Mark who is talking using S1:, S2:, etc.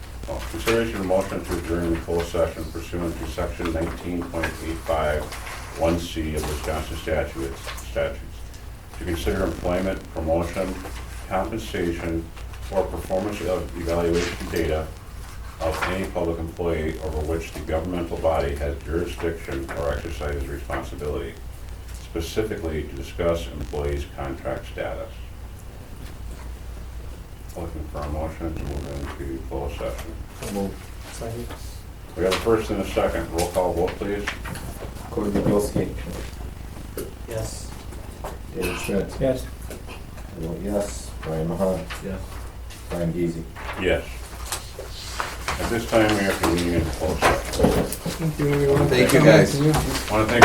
S1: Oh, Consideration of motion to adjourn the closed session pursuant to section nineteen point eight five one C of Wisconsin statutes, statutes. To consider employment, promotion, compensation, or performance of evaluation data of any public employee over which the governmental body has jurisdiction or exercises responsibility, specifically to discuss employees' contract status. Looking for a motion to move into closed session.
S2: So moved. Second.
S1: We have a first and a second. Roll call vote, please.
S3: Cody Dubowski,
S2: Yes.
S3: David Schmidt,
S2: Yes.
S3: I vote yes, Brian Mahan,
S2: Yes.
S3: Brian Geezy.
S1: Yes. At this time, we have to convene in closed session.
S2: Thank you, everyone.
S4: Thank you, guys.
S1: Want to thank